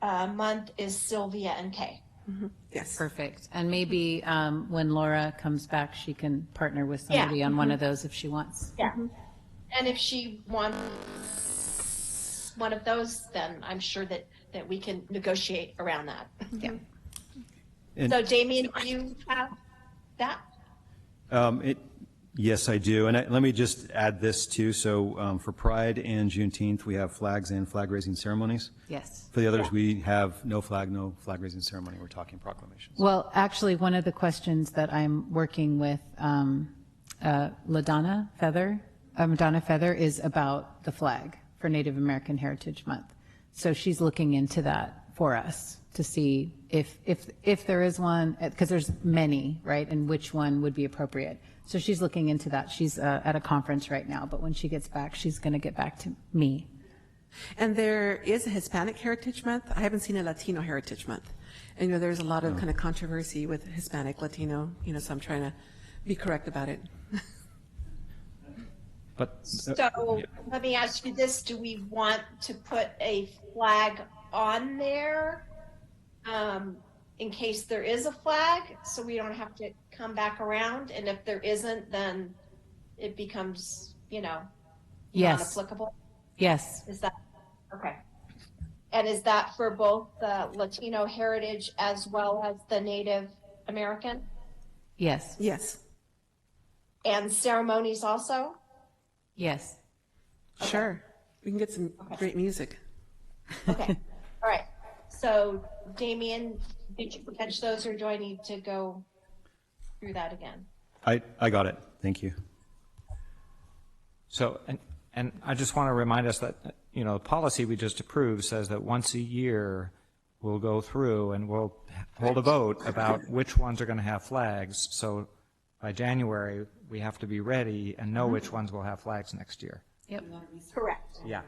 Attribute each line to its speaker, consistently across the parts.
Speaker 1: uh, month is Sylvia and Kay.
Speaker 2: Yes.
Speaker 3: Perfect. And maybe um, when Laura comes back, she can partner with somebody on one of those if she wants.
Speaker 1: Yeah. And if she wants one of those, then I'm sure that, that we can negotiate around that.
Speaker 3: Yeah.
Speaker 1: Mm-hmm. So Damien, do you have that?
Speaker 4: Um, it, yes, I do. And I, let me just add this too. So, um, for Pride and Juneteenth, we have flags and flag raising ceremonies.
Speaker 3: Yes.
Speaker 4: For the others, we have no flag, no flag raising ceremony. We're talking proclamations.
Speaker 3: Well, actually, one of the questions that I'm working with um, uh, LaDonna Feather, um, Donna Feather, is about the flag for Native American Heritage Month. So she's looking into that for us to see if if if there is one, because there's many, right, and which one would be appropriate. So she's looking into that. She's uh, at a conference right now, but when she gets back, she's going to get back to me.
Speaker 2: And there is a Hispanic Heritage Month. I haven't seen a Latino Heritage Month. And, you know, there's a lot
Speaker 4: Oh.
Speaker 2: of kind of controversy with Hispanic, Latino, you know, so I'm trying to be correct about it.
Speaker 4: But uh,
Speaker 1: So let me ask you this, do we want to put a flag on there? Um, in case there is a flag, so we don't have to come back around, and if there isn't, then it becomes, you know,
Speaker 3: Yes.
Speaker 1: non-applicable?
Speaker 3: Yes.
Speaker 1: Is that, okay. And is that for both the Latino heritage as well as the Native American?
Speaker 3: Yes.
Speaker 2: Yes.
Speaker 1: And ceremonies also?
Speaker 3: Yes.
Speaker 2: Sure. We can get some great music.
Speaker 1: Okay, all right. So Damien, did you catch those or do I need to go through that again?
Speaker 4: I, I got it. Thank you.
Speaker 5: So, and, and I just want to remind us that, you know, the policy we just approved says that once a year, we'll go through and we'll hold a vote about which ones are going to have flags. So by January, we have to be ready and know which ones will have flags next year.
Speaker 3: Yep.
Speaker 1: Correct.
Speaker 5: Yeah.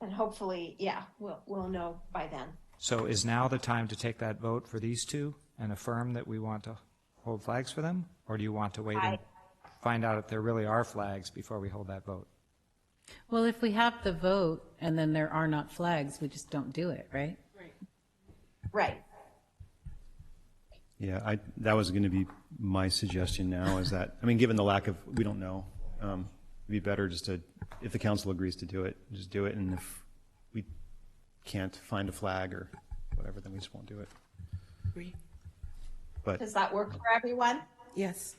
Speaker 1: And hopefully, yeah, we'll, we'll know by then.
Speaker 5: So is now the time to take that vote for these two and affirm that we want to hold flags for them? Or do you want to wait and find out if there really are flags before we hold that vote?
Speaker 3: Well, if we have the vote and then there are not flags, we just don't do it, right?
Speaker 1: Right.
Speaker 4: Yeah, I, that was going to be my suggestion now is that, I mean, given the lack of, we don't know. Um, it'd be better just to, if the council agrees to do it, just do it. And if we can't find a flag or whatever, then we just won't do it. But
Speaker 1: Does that work for everyone?
Speaker 2: Yes.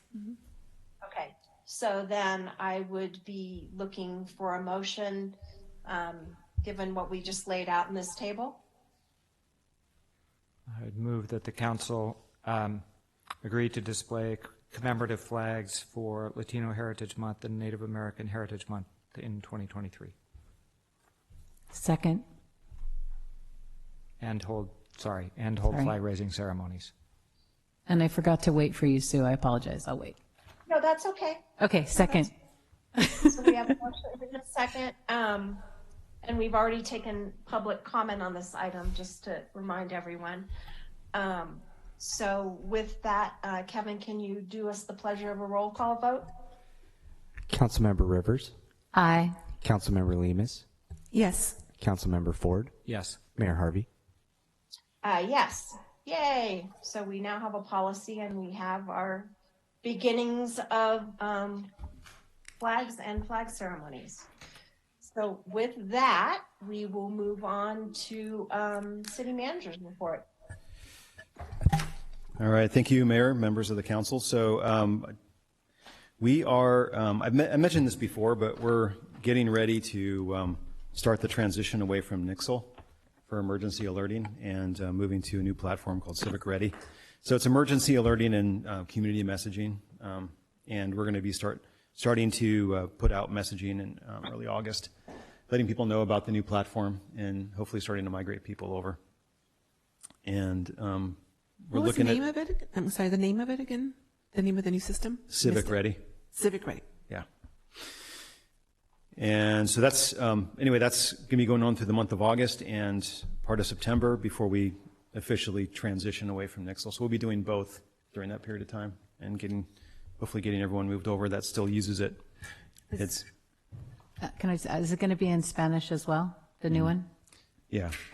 Speaker 1: Okay, so then I would be looking for a motion, um, given what we just laid out in this table.
Speaker 5: I would move that the council um, agree to display commemorative flags for Latino Heritage Month and Native American Heritage Month in 2023,
Speaker 3: Second.
Speaker 5: and hold, sorry, and hold
Speaker 3: Sorry.
Speaker 5: flag raising ceremonies.
Speaker 3: And I forgot to wait for you, Sue. I apologize. I'll wait.
Speaker 1: No, that's okay.
Speaker 3: Okay, second.
Speaker 1: So we have a motion in a second. Um, and we've already taken public comment on this item, just to remind everyone. Um, so with that, uh, Kevin, can you do us the pleasure of a roll call vote?
Speaker 6: Councilmember Rivers,
Speaker 3: Aye.
Speaker 6: Councilmember Lemus,
Speaker 2: Yes.
Speaker 6: Councilmember Ford,
Speaker 5: Yes,
Speaker 6: Mayor Harvey.
Speaker 1: Uh, yes, yay. So we now have a policy and we have our beginnings of, um, flags and flag ceremonies. So with that, we will move on to, um, city manager's report.
Speaker 4: All right, thank you, Mayor, members of the council. So um, we are, um, I've me- I mentioned this before, but we're getting ready to um, start the transition away from Nixle for emergency alerting and uh, moving to a new platform called Civic Ready. So it's emergency alerting and uh, community messaging. Um, And we're going to be start, starting to uh, put out messaging in um, early August, letting people know about the new platform and hopefully starting to migrate people over. And um, we're
Speaker 2: What was the
Speaker 4: looking at.
Speaker 2: name of it? I'm sorry, the name of it again? The name of the new system?
Speaker 4: Civic
Speaker 2: Missed it.
Speaker 4: Ready.
Speaker 2: Civic Ready.
Speaker 4: Yeah. And so that's, um, anyway, that's going to be going on through the month of August and part of September before we officially transition away from Nixle. So we'll be doing both during that period of time and getting, hopefully getting everyone moved over that still uses it. It's,
Speaker 3: Uh, Can I, is it going to be in Spanish as well, the new one?
Speaker 4: yeah.